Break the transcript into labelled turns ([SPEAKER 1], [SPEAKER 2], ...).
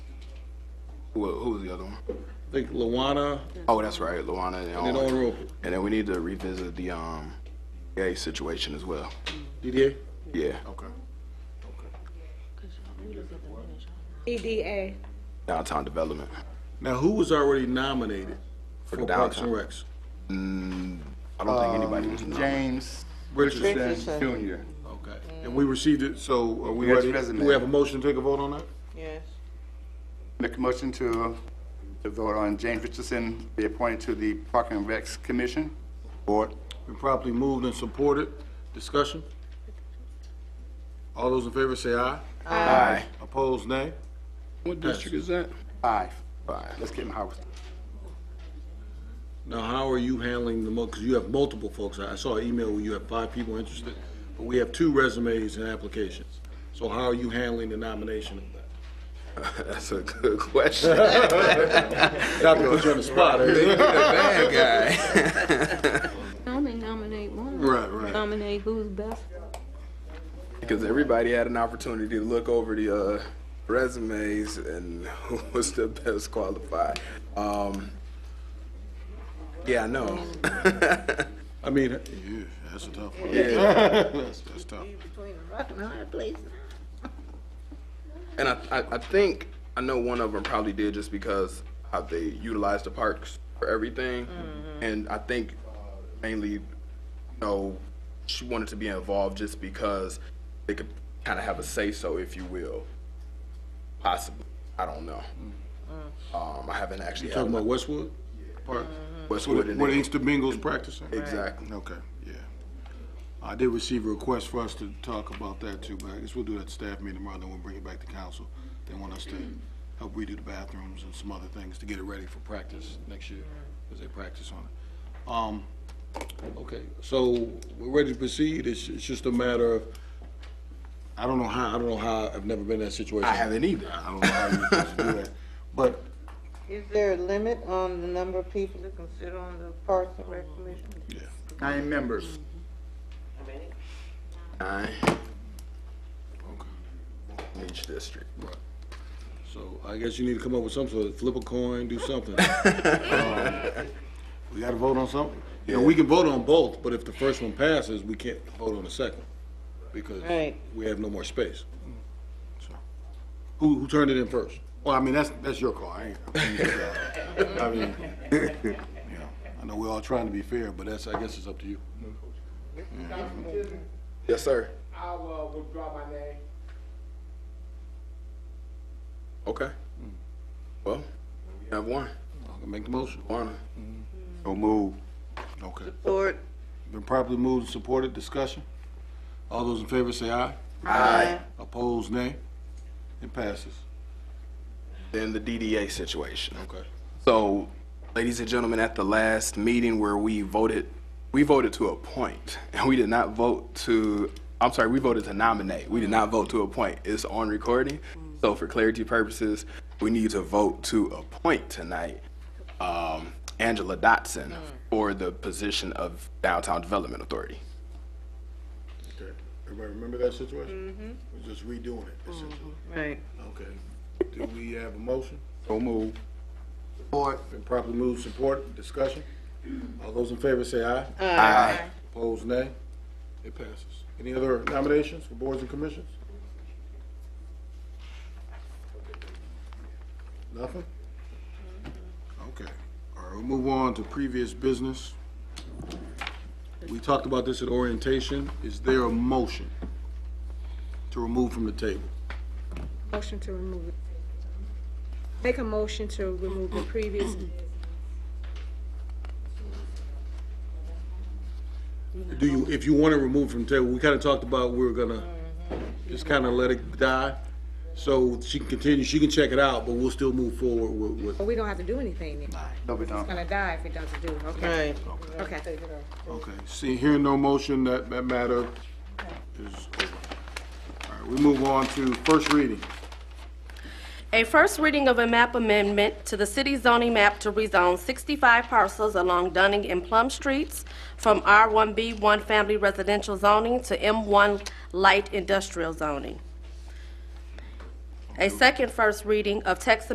[SPEAKER 1] Who, who was the other one?
[SPEAKER 2] I think Luana
[SPEAKER 1] Oh, that's right, Luana and
[SPEAKER 2] and
[SPEAKER 1] Owen.
[SPEAKER 2] Owen Roper.
[SPEAKER 1] And then we need to revisit the, um, gay situation as well.
[SPEAKER 2] DDA?
[SPEAKER 1] Yeah.
[SPEAKER 2] Okay.
[SPEAKER 3] E
[SPEAKER 4] EDA.
[SPEAKER 1] Downtown development.
[SPEAKER 2] Now, who was already nominated for
[SPEAKER 1] the
[SPEAKER 2] Parks and
[SPEAKER 1] downtown.
[SPEAKER 2] Recs?
[SPEAKER 1] I don't think anybody was nominated.
[SPEAKER 5] Um, James
[SPEAKER 2] Richardson.
[SPEAKER 5] Jr.
[SPEAKER 2] Okay. And we received it, so are we
[SPEAKER 5] Yes,
[SPEAKER 2] ready?
[SPEAKER 5] resume.
[SPEAKER 2] Do we have a motion to take a vote on that?
[SPEAKER 6] Yes.
[SPEAKER 5] Make a motion to, to vote on James Richardson be appointed to the Park and Recs Commission.
[SPEAKER 1] Board?
[SPEAKER 2] Been properly moved and supported. Discussion? All those in favor say aye.
[SPEAKER 1] Aye.
[SPEAKER 2] Opposed, nay.
[SPEAKER 1] What district is that?
[SPEAKER 5] Five.
[SPEAKER 1] Five.
[SPEAKER 5] Let's get him housed.
[SPEAKER 2] Now, how are you handling the, because you have multiple folks. I I saw an email where you have five people interested, but we have two resumes and applications. So how are you handling the nomination of that?
[SPEAKER 1] That's a good question.
[SPEAKER 2] Not to put you on the spot, eh?
[SPEAKER 1] Bad guy.
[SPEAKER 3] I only nominate one.
[SPEAKER 2] Right, right.
[SPEAKER 3] Nominate who's best.
[SPEAKER 1] Because everybody had an opportunity to look over the uh, resumes and who was the best qualified. Um, yeah, I know.
[SPEAKER 2] I mean, yeah, that's a tough one.
[SPEAKER 1] yeah.
[SPEAKER 2] That's, that's tough.
[SPEAKER 1] And I, I, I think I know one of them probably did just because how they utilized the parks for everything. And I think mainly, you know, she wanted to be involved just because they could kind of have a say so, if you will. Possibly. I don't know. Um, I haven't actually had
[SPEAKER 2] Talking
[SPEAKER 1] my-
[SPEAKER 2] about Westwood? Park?
[SPEAKER 1] Westwood
[SPEAKER 2] Where
[SPEAKER 1] and
[SPEAKER 2] where the Inkster Bengals practicing?
[SPEAKER 1] Exactly.
[SPEAKER 2] Okay, yeah. I did receive a request for us to talk about that too, but I guess we'll do that staff meeting tomorrow, then we'll bring it back to council. They want us to help redo the bathrooms and some other things to get it ready for practice next year, because they practice on it. Um, okay, so we're ready to proceed, it's, it's just a matter of, I don't know how, I don't know how, I've never been in that situation.
[SPEAKER 1] I haven't either.
[SPEAKER 2] I don't know how you're supposed to do that, but
[SPEAKER 6] Is there a limit on the number of people to consider on the Parks and Rec Commission?
[SPEAKER 5] Nine members.
[SPEAKER 6] How many?
[SPEAKER 1] Nine. In Each district.
[SPEAKER 2] So I guess you need to come up with some sort of flip a coin, do something. Um, We gotta vote on something. You know, we can vote on both, but if the first one passes, we can't vote on the second because
[SPEAKER 6] Right.
[SPEAKER 2] we have no more space. So, Who, who turned it in first?
[SPEAKER 1] Well, I mean, that's, that's your call.
[SPEAKER 2] I ain't, I mean, you know, I know we're all trying to be fair, but that's, I guess it's up to you.
[SPEAKER 1] Yes, sir.
[SPEAKER 7] I'll uh, withdraw my name.
[SPEAKER 1] Okay.
[SPEAKER 7] Mm.
[SPEAKER 1] Well, we have one.
[SPEAKER 2] I'll Make the motion.
[SPEAKER 1] One.
[SPEAKER 5] So move.
[SPEAKER 2] Okay.
[SPEAKER 6] Or
[SPEAKER 2] Been properly moved and supported. Discussion? All those in favor say aye.
[SPEAKER 1] Aye.
[SPEAKER 2] Opposed, nay. It passes.
[SPEAKER 1] Then the DDA situation.
[SPEAKER 2] Okay.
[SPEAKER 1] So, ladies and gentlemen, at the last meeting where we voted, we voted to appoint, and we did not vote to, I'm sorry, we voted to nominate. We did not vote to appoint. It's on recording. So for clarity purposes, we need to vote to appoint tonight um, Angela Dotson for the position of Downtown Development Authority.
[SPEAKER 2] Okay, everybody remember that situation? We're just redoing it essentially.
[SPEAKER 6] Right.
[SPEAKER 2] Okay, do we have a motion?
[SPEAKER 5] So move.
[SPEAKER 2] Been properly moved, supported, discussion? All those in favor say aye.
[SPEAKER 1] Aye.
[SPEAKER 2] Opposed, nay. It passes. Any other nominations for boards and commissions? Nothing? Okay, all right, we'll move on to previous business. We talked about this at orientation. Is there a motion to remove from the table?
[SPEAKER 3] Motion to remove it. Make a motion to remove the previous.
[SPEAKER 2] Do you, if you want to remove from the table, we kind of talked about we were gonna just kind of let it die. So she can continue, she can check it out, but we'll still move forward with,
[SPEAKER 3] But
[SPEAKER 2] with,
[SPEAKER 3] we don't have to do anything then. It's
[SPEAKER 5] No, we don't.
[SPEAKER 3] gonna die if it doesn't do. Okay,
[SPEAKER 6] Right.
[SPEAKER 3] okay.
[SPEAKER 2] okay. See, hearing no motion, that, that matter is over. All right, we move on to first reading.
[SPEAKER 8] A first reading of a map amendment to the city zoning map to rezone 65 parcels along Dunning and Plum Streets from R1B 1 Family Residential Zoning to M1 Light Industrial Zoning. A second first reading of text